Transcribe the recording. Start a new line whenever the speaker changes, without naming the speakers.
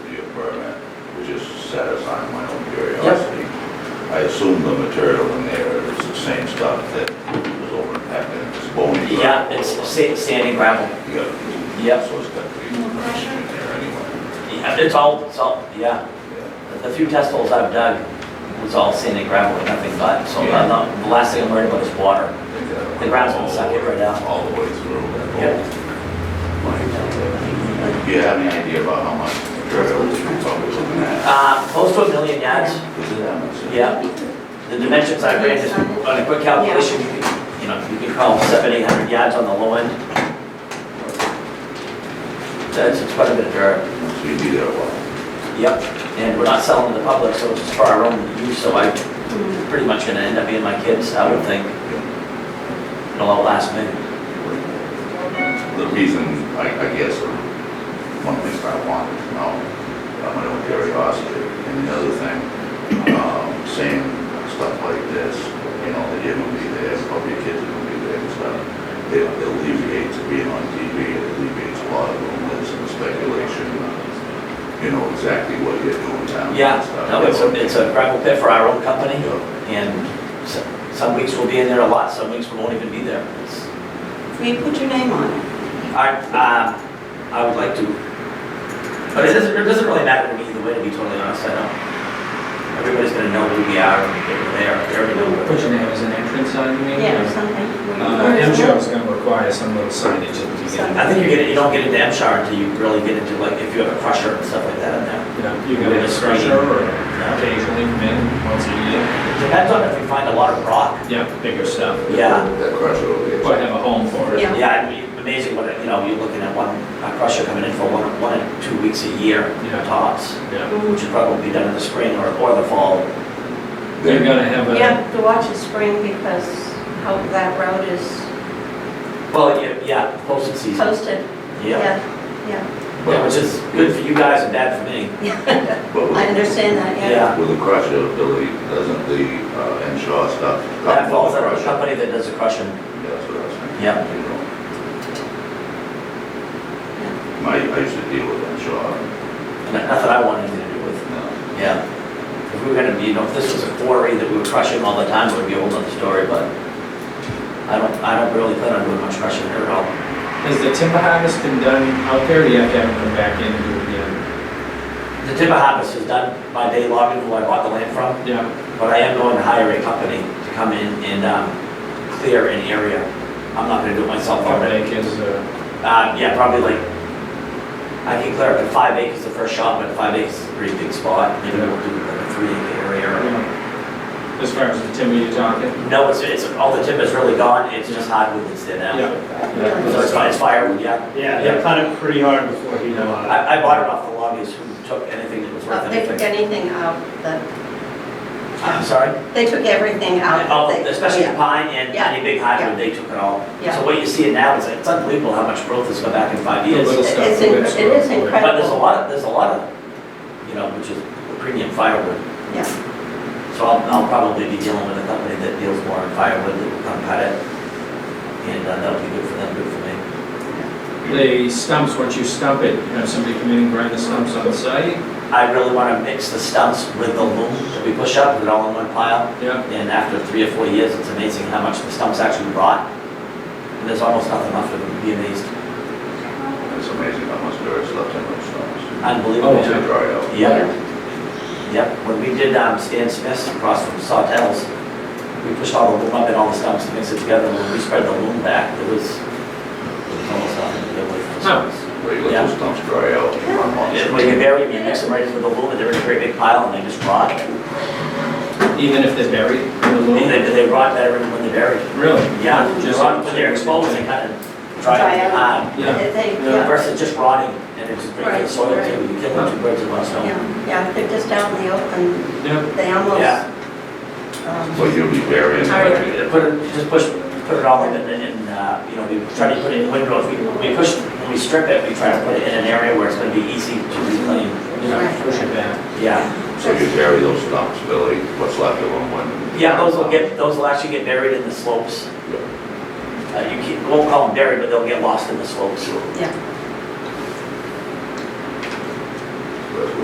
satisfying my own curiosity. I assume the material in there is the same stuff that was over in Peck and it's bony.
Yeah, it's sa- sand and gravel.
Yeah.
Yep.
So it's got to be
More pressure?
in there anyway.
Yeah, It's all, it's all, yeah.
Yeah.
The few test holes I've dug was all sand and gravel and nothing but, so I'm not- the last thing I'm worried about is water. The ground's gonna suck it right out.
All the way through that hole.
Yep.
Do you have any idea about how much material you're probably looking at?
Uh, close to a million yards,
Is it that much?
yeah. The dimensions I ran just on a quick calculation, you could- you know, you could call seven, eight hundred yards on the low end. That's, it's quite a bit of dirt.
So you'd be there a while.
Yep. And we're not selling to the public, so it's just for our own use, so I, pretty much gonna end up being my kids, I would think. It'll all last me.
The reason, I, I guess, or one of the things I wanted to know, uh, my own curiosity, and the other thing, um, seeing stuff like this, you know, that you're gonna be there, probably your kids are gonna be there and stuff. It it alleviates being on TV, it alleviates a lot of rumors and speculation, you know, exactly what you're doing down there
Yeah,
and stuff.
no, it's a, it's a gravel pit for our own company,
Yeah.
and s- some weeks we'll be in there a lot, some weeks we won't even be there. It's-
We put your name on it.
I, um, I would like to, but it doesn't, it doesn't really matter to me either way, to be totally honest, I don't. Everybody's gonna know who we are, and they were there, they're gonna know.
Put
we're
your
there.
name as an entrance sign, you mean?
Yeah, or something.
Uh, MJO is gonna require some little signage at the beginning.
I think you get, it- you don't get into MSHAR until you really get into like, if you have a crusher and stuff like that in there.
Yeah, You got a discussion or occasionally come in once a year.
Depends on if we find a lot of rock,
Yeah, bigger stuff.
yeah.
That crusher over there.
But have a home for it.
Yeah.
Yeah, it'd be amazing what, you know, you're looking at one, a crusher coming in for one, one and two weeks a year
Yeah.
tops,
Yeah.
which
Mm.
would probably be done in the spring or, or the fall.
They're gonna have
You
a,
have to watch the spring because how that road is
Well, yeah, yeah, posted season,
posted.
yeah.
Yeah,
Yeah, which is good for you guys and bad for me.
yeah.
But with-
I understand that, yeah.
Yeah.
With the crusher ability, doesn't the uh, Ensure stuff
That
come from
falls
the
under the
crusher?
company that does the crushing.
That's what I was thinking.
Yeah.
You know, I I used to deal with Ensure.
N- Not that I want anything to do with,
uh,
yeah. If we were gonna be, you know, if this was a quarry that we were crushing all the time, it would be a whole other story, but I don't, I don't really plan on doing much crushing here at all.
has the timber harvest been done out there, or do you have to have it come back in and do it again?
The timber harvest is done by Dave Logan, who I bought the land from.
Yeah,
But I am going to hire a company to come in and um, clear an area. I'm not gonna do it myself
couple
already.
acres, uh,
Uh, yeah, probably like, I can clear up to five acres the first shot, but five acres is a pretty big spot. Maybe we'll do like a three acre area.
yeah. as far as the timber you're talking?
No, it's, it's, all the timber's really gone, it's just hardwood that's there now. So it's fine, it's firewood, yeah.
Yeah, they cut it pretty hard before he died.
I, I bought it off the lobbyists who took anything that was
Uh,
worth
They took
anything.
anything out, that-
I'm sorry?
they took everything out.
Oh,
They-
especially
yeah.
pine and
Yeah.
any big hardwood, they took it all.
Yeah.
So what you see now is, it's unbelievable how much growth has come back in five years.
Little
It's-
stuff
it's
that
in-
lives
it is
around the way.
incredible.
But there's a lot, there's a lot of, you know, which is premium firewood.
Yeah.
So I'll, I'll probably be dealing with a company that deals more in firewood that will come cut it. And uh, that'll be good for them, good for me.
The stumps, once you stump it, you have somebody come in and grind the stumps on site?
I really want to mix the stumps with the loom that we push up, put it all in one pile.
Yeah.
And after three or four years, it's amazing how much the stumps actually rot. And there's almost nothing left of them, you'd be amazed,
It's amazing how much there is left in those stones.
unbelievable.
Oh, yeah.
They dry out.
Yep, yep, when we did um, Stan Smith's across from Sawtells, we pushed all the loom up and all the stumps to mix it together, and when we spread the loom back, it was, it was almost nothing to get away from the stumps.
Where you let those stumps dry out in one
And
month.
When you bury them, you mix them right into the loom, and they're in a great big pile, and they just rot. And
Even if they're buried in the loom?
they, they rot better than when they're buried.
Really?
Yeah,
Just-
rot when they're exposed, they kind of dry
Dry out.
out.
Yeah.
They- They, yeah,
Yeah.
Versus just rotting, and it's great for the
Right,
soil
right.
too, you kill two birds with one stone.
yeah, yeah, they're just out in the open,
Yeah,
they almost,
Yeah.
um,
So you'll be burying.
All right.
them.
Put it, just push, put it all in, and, and, uh, you know, we try to put it in windrows, we, we push, when we strip it, we try to put it in an area where it's gonna be easy to reclaim.
yeah, push it back.
Yeah,
So you bury those stumps, Billy, what's left of them when?
yeah, those will get, those will actually get buried in the slopes. Uh, you keep, won't call them buried, but they'll get lost in the slopes.
yeah,